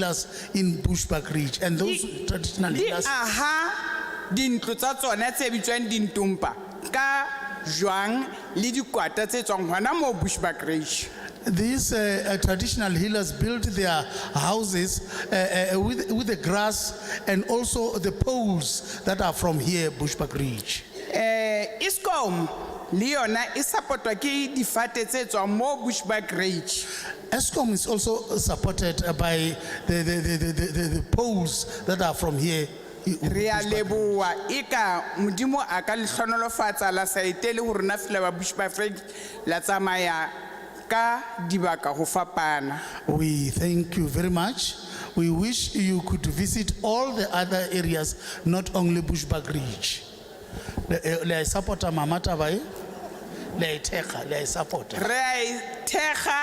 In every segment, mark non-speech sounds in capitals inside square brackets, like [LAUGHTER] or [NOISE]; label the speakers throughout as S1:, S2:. S1: healers in Bushbuck Ridge and those traditional
S2: di
S1: healers.
S2: aha dintlo tsa tsona tse bitswang dintompa ka jwang le dikwata tse tswang hona moo bushback rage
S1: These uh, uh, traditional healers built their houses uh, uh, with, with the grass and also the poles that are from here, Bushbuck Ridge.
S2: um eskom le yona e support-wa ke difate tse tswang moo bushback rage
S1: ESCOM is also supported uh, by the, the, the, the, the, the- the poles that are from here.
S2: re a leboa e ka modimo a ka letlhonolofatsa la saete le go rona fela ba bushback rage la tsamaya ka dibaka go fapana
S1: We thank you very much. We wish you could visit all the other areas, not only Bushbuck Ridge. Le eh, le a e support-a Mama Taba e? Le a e thekga, le a e support-a.
S2: re a e thekga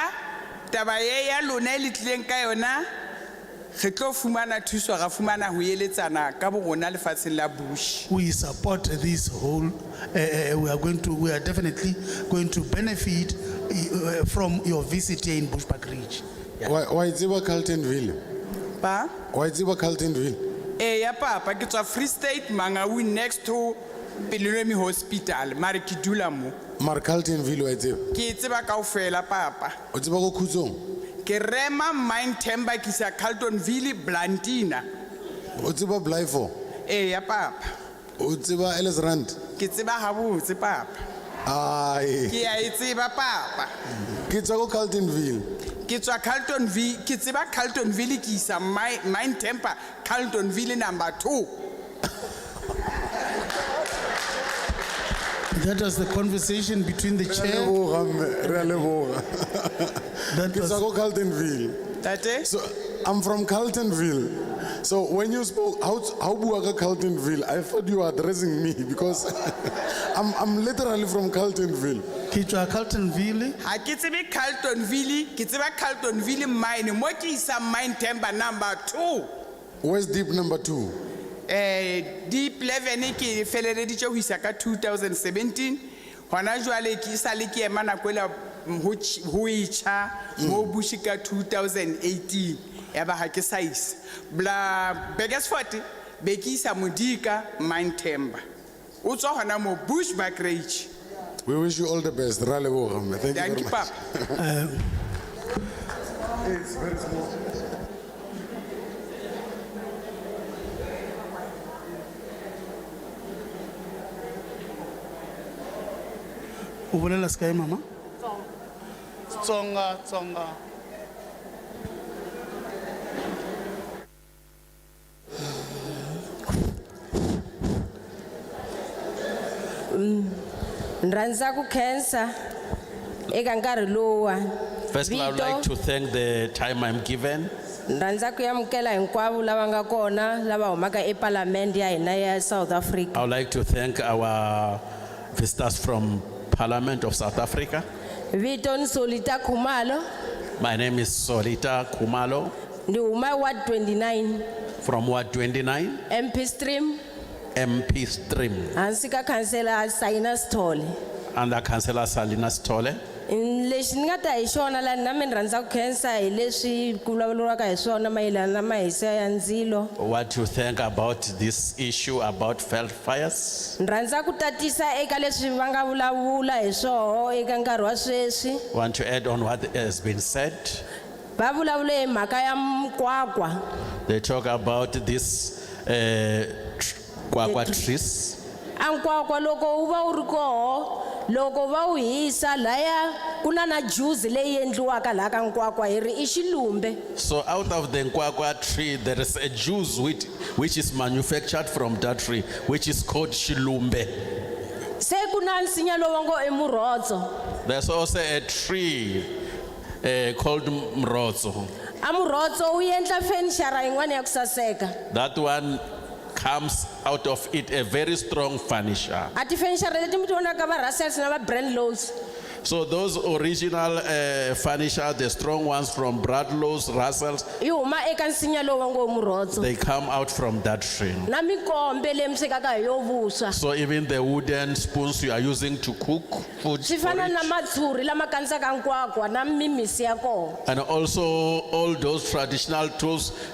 S2: taba ye ya lona e le tlileng ka yona re tlo fumana thuso ra fumana ho eletsana ka bo rona lefatsheng la bush
S1: We support this whole, eh, eh, we are going to, we are definitely going to benefit eh, eh, from your visit here in Bushbuck Ridge.
S3: Wa wa e itsiba Carltonville.
S2: pa
S3: Wa e itsiba Carltonville.
S2: ee ya papa ke tswa free state mangawi next to pelenomi hospital mare ke dula mo
S3: Mar Carltonville wa itsiba.
S2: ke e tseba kao fela papa
S3: O tsiba ko Khutsong.
S2: ke rema mine temba ke isa carltonville blantina
S3: O tsiba Blyfo.
S2: ee ya papa
S3: O tsiba Ellisrand.
S2: ke tseba gabotse papa
S3: Ai.
S2: ke a e tseba papa
S3: Ke tswa ko Carltonville.
S2: ke tswa carltonville ke tseba carltonville ke isa Mi- mine temper carltonville number two
S1: That was the conversation between the
S3: Re a
S1: chair.
S3: leboga mme, re a leboga.
S1: That
S3: Ke
S1: was,
S3: tswa ko Carltonville.
S2: tate
S3: So I'm from Carltonville. So when you spoke how how bua ka Carltonville, I thought you were addressing me because [LAUGHS] I'm I'm literally from Carltonville.
S1: ke tswa Carltonville,
S2: ga ke tsebe carltonville ke tseba carltonville mine mo ke isa mine temper number two
S3: West Deep number 2.
S2: um deep leven ke feleleditse go isa ka 2017 gona jwale ke isa le ke ema nako ele go etšha mo
S3: Mm.
S2: bushi ka 2018 ya ba ga ke sa isa bla bekersfort be ke isa modika mine tember o tswa gona mo bush backrage
S3: We wish you all the best. Ra leboga mme. Thank you
S2: thank you
S3: very much.
S2: papa
S1: o bolela se kae mama? Tsonga, Tsonga.
S4: rhandza ku khensa eka nkarhi lowuwa
S5: First, I would like to thank the time I'm given.
S4: rhandza ku amukela hinkwavo lava nga kona lava humaka epalamende ya hina ya south africa
S5: I would like to thank our visitors from Parliament of South Africa.
S4: vito ni solita khumalo
S5: My name is Solita Kumalo
S4: ni huma ward 29
S5: from Ward 29,
S4: mp stream
S5: MP Stream,
S4: hansi ka khansela sayina stole
S5: under Councillor Salina Stole.
S4: lexi ni nga ta hi xona laha na mina rhandza ku khensa hi leswi ku vulavuriwaka hi swona mayelana na mahisa ya ndzilo
S5: What you think about this issue about failed fires?
S4: ni rhandza ku tatisa eka leswi va nga vulavula hi swoho eka nkarhi wa sweswi
S5: Want to add on what has been said?
S4: va vulavule hi mhaka ya mikwakwa
S5: They talk about this uh, tr- kwakwa trees.
S4: a nkwakwa loko wu va wu ri koho loko va wu hisa laya ku na na juzi leyi endliwaka laha ka nkwakwa hi ri i xilumbe
S5: So out of the Nkwakwa tree, there is a juice which, which is manufactured from that tree, which is called shilumbe.
S4: se ku na nsinya lowu ngo i murhotso
S5: There's also a tree uh, called mrozo.
S4: a murhotso wu endla fenixara yin'wana ya ku saseka
S5: That one comes out of it a very strong furniture.
S4: a tifenixara leti mi ti vonaka va russels na va brand lows
S5: So those original uh, furniture, the strong ones from Bradlow's, Russell's,
S4: yi huma eka nsinya lowu va ngo murhotso
S5: they come out from that tree.
S4: na mikombe leyi mi swekaka hi yo vuswa
S5: So even the wooden spoons you are using to cook food
S4: swi fana na
S5: porridge,
S4: matshuri lama kandzisaka nkwakwa na mimisi ya kona
S5: and also all those traditional tools